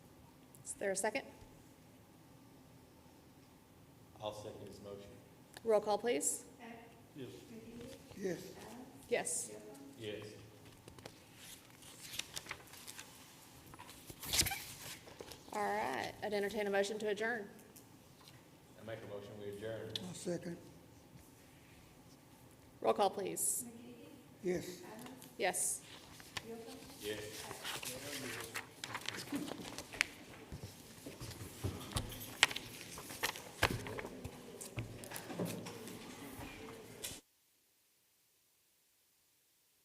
There a second? I'll second his motion. Roll call, please. Yes. Yes. Yes. Yes. All right, I'd entertain a motion to adjourn. I make a motion, we adjourn. I'll second. Roll call, please. Yes. Yes. Yes.